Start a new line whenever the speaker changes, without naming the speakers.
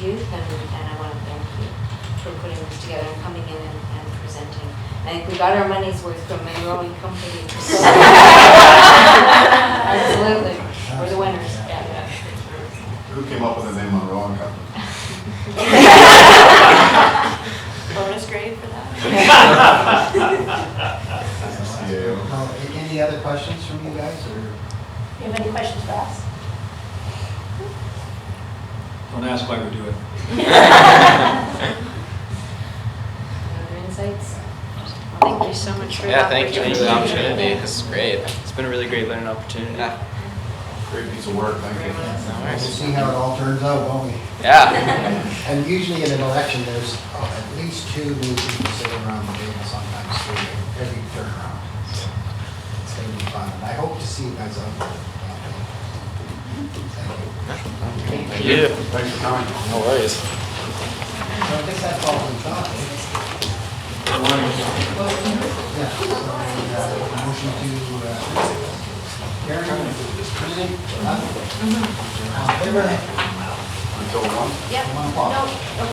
youth, and, and I want to thank you for putting this together and coming in and, and presenting. I think we got our money's worth from a growing company. Absolutely, we're the winners.
Who came up with the name Monroe and Company?
Bonus grade for that?
CAO.
Now, a- Uh, Any other questions from you guys, or?
You have any questions for us?
Don't ask why we do it.
Other insights?
Thank you so much for the
Yeah, thank you for the
opportunity.
opportunity. This is great.
It's been a really great learning opportunity.
Yeah,
Great piece of work, thank you.
We'll
nice.
see how it all turns out, won't we?
Yeah,
And usually in an election, there's uh, at least two new people sitting around the table sometimes, three, every turnaround. So It's going to be fun, and I hope to see you guys out there. Thank you.
thank you.
Thanks for coming.
No worries.
So I think that's all we've got. Yeah, so, uh, Motion to, uh, Karen, Susan, huh? All in favor?
Until one.
Yep.
One o'clock.
No,